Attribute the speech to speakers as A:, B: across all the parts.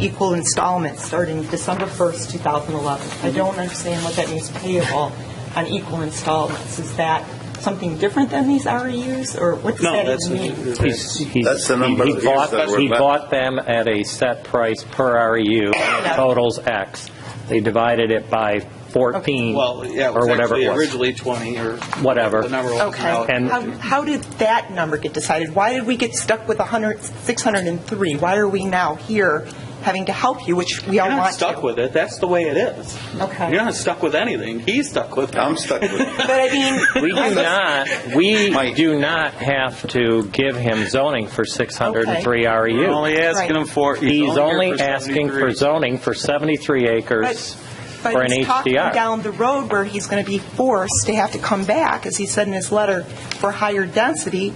A: equal installments starting December 1st, 2011. I
B: Mm-hmm.
A: don't understand what that means payable on equal installments. Is that something different than these REUs, or what does
B: No,
A: that
B: that's-
A: even mean?
C: He's- he's-
D: That's the number
C: he- he
D: of years
C: bought-
D: that were
C: He
D: left.
C: bought them at a set price per REU, and it totals X. They divided it by 14,
B: Well, yeah, it
C: or
B: was
C: whatever
B: actually
C: it was.
B: originally 20 or
C: Whatever.
B: The number was
A: Okay.
C: And-
A: How- How did that number get decided? Why did we get stuck with 100, 603? Why are we now here having to help you, which we all
B: You're
A: want to?
B: not stuck with it. That's the way it is.
A: Okay.
B: You're not stuck with anything. He's stuck with it.
D: I'm stuck with it.
A: But I mean...
C: We do not, we
D: Mike.
C: do not have to give him zoning for 603
B: You're only
C: REU.
B: asking him for.
C: E He's only
B: here for
C: asking for
B: 73.
C: zoning for 73 acres
A: But
C: for
A: but
C: an
A: he's talking
C: HDR.
A: down the road where he's going to be forced to have to come back, as he said in his letter, for higher density.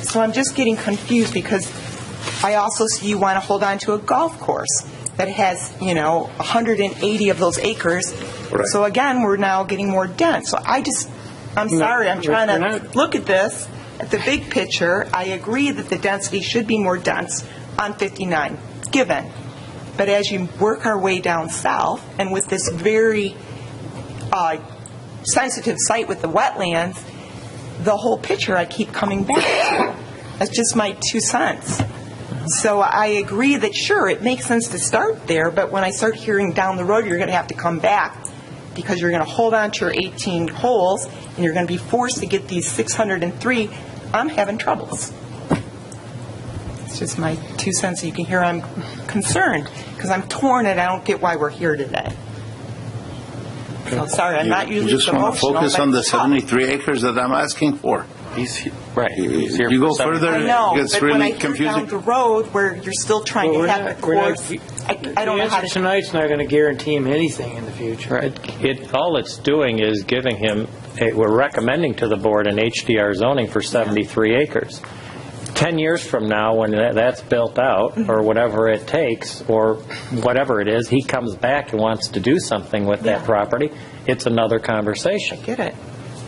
A: So I'm just getting confused because I also see you want to hold on to a golf course that has, you know, 180 of those acres.
D: Right.
A: So again, we're now getting more dense. So I just, I'm sorry, I'm trying
C: we're
A: to
C: not-
A: look at this, at the big picture. I agree that the density should be more dense on 59, given. But as you work our way down south, and with this very uh, sensitive site with the wetlands, the whole picture I keep coming back to. That's just my two cents. So I agree that, sure, it makes sense to start there, but when I start hearing down the road, you're going to have to come back because you're going to hold on to your 18 holes and you're going to be forced to get these 603, I'm having troubles. It's just my two cents. You can hear I'm concerned because I'm torn and I don't get why we're here today. So sorry, I'm not
D: You
A: usually this
D: just
A: emotional.
D: want to focus
A: but
D: on the
A: it's tough.
D: 73 acres that I'm asking for.
B: He's he-
C: Right. He's here
D: You
C: for
D: go
C: 73.
D: further,
A: I know,
D: it gets
A: but when I
D: really
A: hear down the
D: confusing.
A: road where you're still trying
E: Well,
A: to
E: we're
A: have
E: not,
A: the
E: we're not,
A: course, I I don't know how
E: The answer
A: to...
E: tonight's not going to guarantee him anything in the future.
C: It, it- all it's doing is giving him, a- we're recommending to the board an HDR zoning for 73 acres. 10 years from now, when tha- that's built out,
A: Mm-hmm.
C: or whatever it takes, or whatever it is, he comes back and wants to do something with that property, it's another conversation.
A: Get it.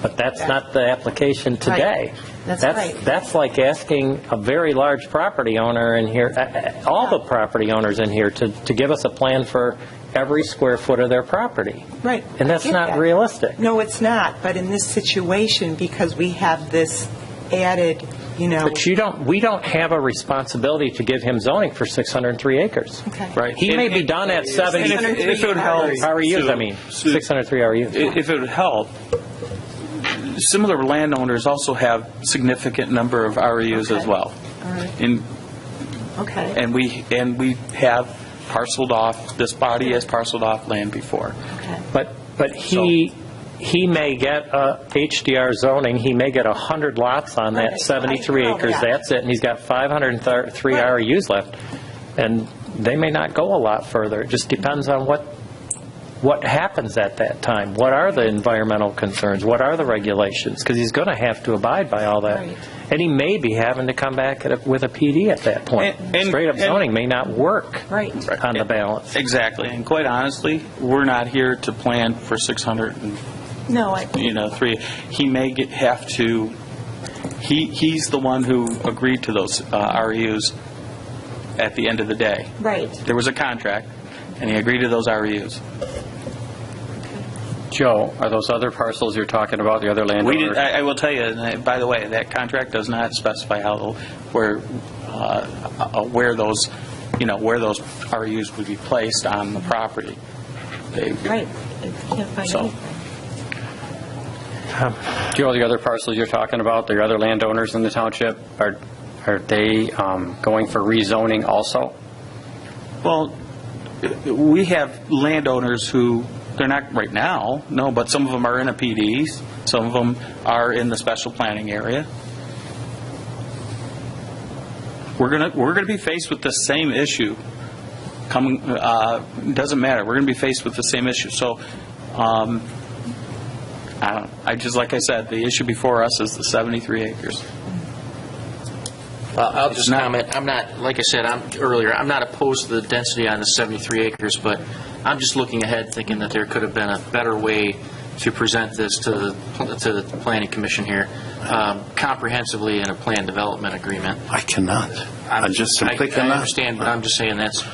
C: But that's not the application today.
A: That's right.
C: That's like asking a very large property owner in here, uh, uh, all the property owners in here, to, to give us a plan for every square foot of their property.
A: Right.
C: And that's
A: I get
C: not
A: that.
C: realistic.
A: No, it's not, but in this situation, because we have this added, you know...
C: But you don't, we don't have a responsibility to give him zoning for 603 acres.
A: Okay.
B: Right.
C: He may be done at 70,
B: And if- if it would help-
C: REUs, I mean,
B: Sue-
C: 603 REUs.
B: I- If it would help, similar landowners also have significant number of REUs as
A: Okay.
B: well.
A: All right.
B: And,
A: Okay.
B: and we, and we have parceled off, this body has parceled off land before.
A: Okay.
C: But, but he, he may get a HDR zoning, he may get 100 lots on
A: Right.
C: that
A: I
C: 73
A: know
C: acres,
A: that.
C: that's it, and he's got 503
A: oh, Right.
C: RUs left, and they may not go a lot further, it just depends on what, what happens at that time, what are the environmental concerns, what are the regulations, because he's going to have to abide by all that.
A: Right.
C: And he may be having to come back at a- with a PD at that point.
B: And- and-
C: Straight-up
B: and-
C: zoning may not work
A: Right.
C: on the balance.
B: Exactly. And quite honestly, we're not here to plan for 600 and
A: No, I...
B: you know, three, he may get, have to, he, he's the one who agreed to those uh, REUs at the end of the day.
A: Right.
B: There was a contract, and he agreed to those E REUs.
F: Joe, are those other parcels you're talking about, the other
B: We did,
F: landowners?
B: I, I will tell you, and I- by the way, that contract does not specify how, where, uh, uh, where those, you know, where those REUs would be placed on the property. They-
A: Right. I can't find
B: So-
A: anything.
F: Joe, the other parcels you're talking about, the other landowners in the township, are, are they um, going for rezoning also?
B: Well, we have landowners who, they're not right now, no, but some of them are in a PDs, some of them are in the special planning area. We're going to, we're going to be faced with the same issue coming, uh, doesn't matter, we're going to be faced with the same issue. So, um, I don't, I just, like I said, the issue before us is the 73 acres.
G: Uh, I'll just comment, I'm not, like I said, I'm, earlier, I'm not opposed to the density on the 73 acres, but I'm just looking ahead, thinking that there could have been a better way to present this to the, to the planning commission here, um, comprehensively in a plan development agreement.
D: I cannot. I just simply
G: I
D: cannot.
G: understand, but I'm just saying that's,